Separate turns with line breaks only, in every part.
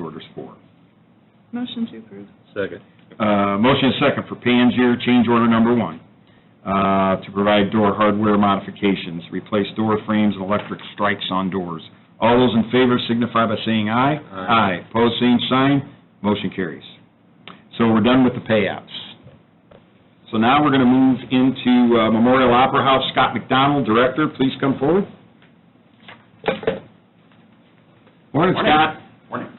orders for.
Motion to approve.
Second.
Uh, Motion second for Pangier, change order number one, uh, to provide door hardware modifications, replace door frames and electric strikes on doors. All those in favor signify by saying aye.
Aye.
Aye, pose same sign, motion carries. So we're done with the payouts. So now we're going to move into uh, Memorial Opera House. Scott McDonald, Director, please come forward. Morning, Scott.
Morning.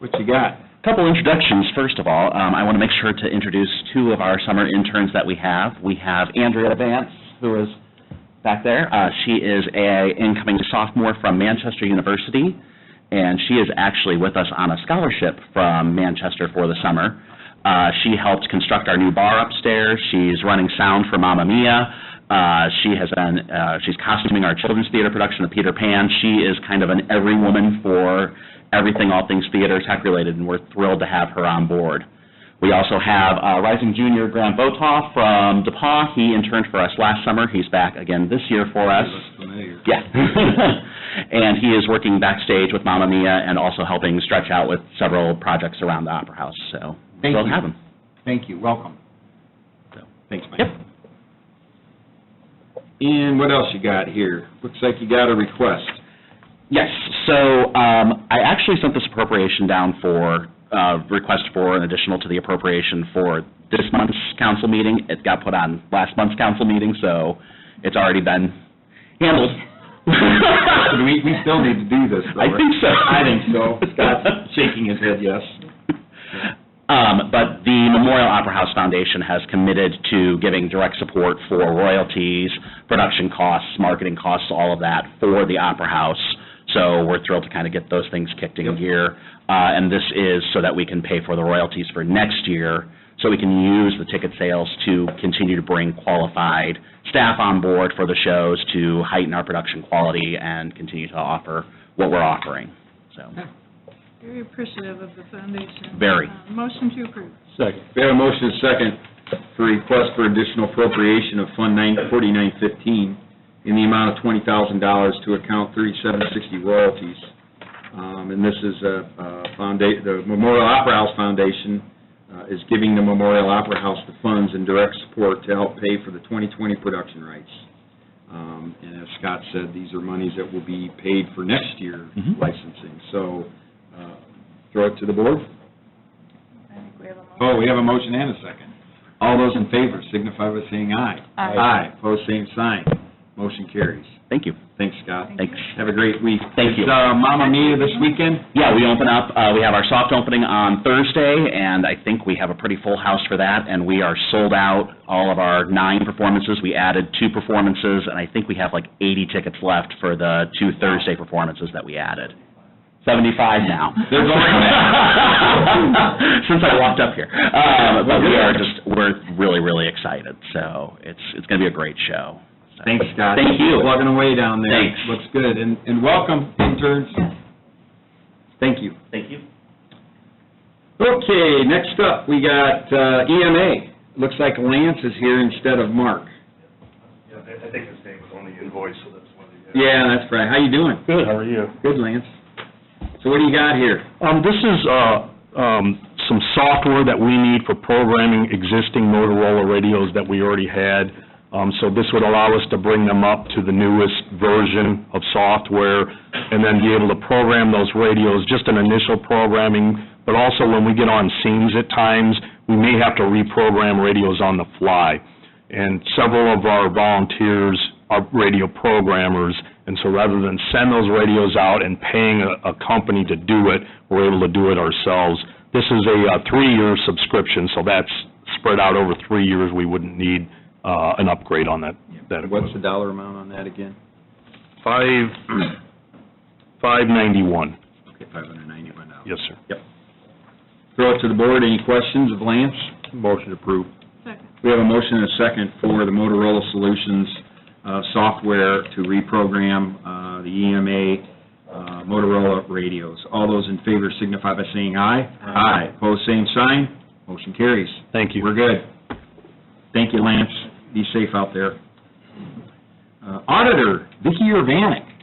What you got?
Couple introductions, first of all. Um, I want to make sure to introduce two of our summer interns that we have. We have Andrea Vance, who is back there. Uh, She is a incoming sophomore from Manchester University, and she is actually with us on a scholarship from Manchester for the summer. Uh, She helped construct our new bar upstairs. She's running sound for Mamma Mia. Uh, She has been, uh, she's costuming our children's theater production of Peter Pan. She is kind of an every woman for everything, all things theater, tech-related, and we're thrilled to have her on board. We also have uh, rising junior Graham Botoff from DePaul. He interned for us last summer. He's back again this year for us.
familiar.
Yeah. And he is working backstage with Mamma Mia and also helping stretch out with several projects around the Opera House, so
Thank
thrilled
you.
to have him.
Thank you, welcome.
So.
Thanks, Mike.
Yep.
And what else you got here? Looks like you got a request.
Yes, so um, I actually sent this appropriation down for, uh, request for an additional to the appropriation for this month's council meeting. It got put on last month's council meeting, so it's already been handled.
We, we still need to do this, though.
I
right?
think so.
I think so. Scott's shaking his head, yes.
Um, But the Memorial Opera House Foundation has committed to giving direct support for royalties, production costs, marketing costs, all of that for the Opera House. So we're thrilled to kind of get those things kicked in gear. Uh, And this is so that we can pay for the royalties for next year, so we can use the ticket sales to continue to bring qualified staff on board for the shows to heighten our production quality and continue to offer what we're offering, so.
Very appreciative of the foundation.
Very.
Uh, Motion to approve.
Second.
We have a motion and a second for request for additional appropriation of Fund 9- 4915 in the amount of $20,000 to account 3760 royalties. Um, And this is a foundation, the Memorial Opera House Foundation uh, is giving the Memorial Opera House the funds and direct support to help pay for the 2020 production rights. Um, And as Scott said, these are monies that will be paid for next year
Mhm.
licensing. So uh, throw it to the board.
I think we have a motion.
Oh, we have a motion and a second. All those in favor signify by saying aye.
Aye.
Aye, pose same sign. Motion carries.
Thank you.
Thanks, Scott.
Thank you.
Thanks.
Have a great week.
Thank you.
Is uh, Mamma Mia this weekend?
Yeah, we open up, uh, we have our soft opening on Thursday, and I think we have a pretty full house for that, and we are sold out, all of our nine performances. We added two performances, and I think we have like 80 tickets left for the two Thursday performances that we added. 75 now.
There's only-
Since I walked up here. Uh, But we are just, we're really, really excited, so it's, it's going to be a great show. So-
Thanks, Scott.
Thank you.
Plugging away down there.
Thanks.
Looks good. And, and welcome, interns. Thank you.
Thank you.
Okay, next up, we got uh, EMA. Looks like Lance is here instead of Mark.
Yeah, I I think his name was on the invoice, so that's why. they-
Yeah, that's right. How you doing?
Good, how are you?
Good, Lance. So what do you got here?
Um, this is, uh, um, some software that we need for programming existing Motorola radios that we already had. Um, so this would allow us to bring them up to the newest version of software and then be able to program those radios, just an initial programming, but also when we get on scenes at times, we may have to reprogram radios on the fly. And several of our volunteers are radio programmers, and so rather than send those radios out and paying a, a company to do it, we're able to do it ourselves. This is a uh, three-year subscription, so that's spread out over three years. We wouldn't need uh, an upgrade on that, that
What's the
equipment.
dollar amount on that again?
Five, five ninety-one,
Okay, oh $591.
yes, sir.
Throw it to the board, any questions of Lance? Motion approved.
Second.
We have a motion and a second for the Motorola Solutions uh, software to reprogram uh, the EMA uh, Motorola radios. All those in favor signify by saying aye.
Aye.
Pose same sign, motion carries.
Thank you.
We're good. Thank you, Lance. Be safe out there. Uh, Auditor, Vicki Urbanek.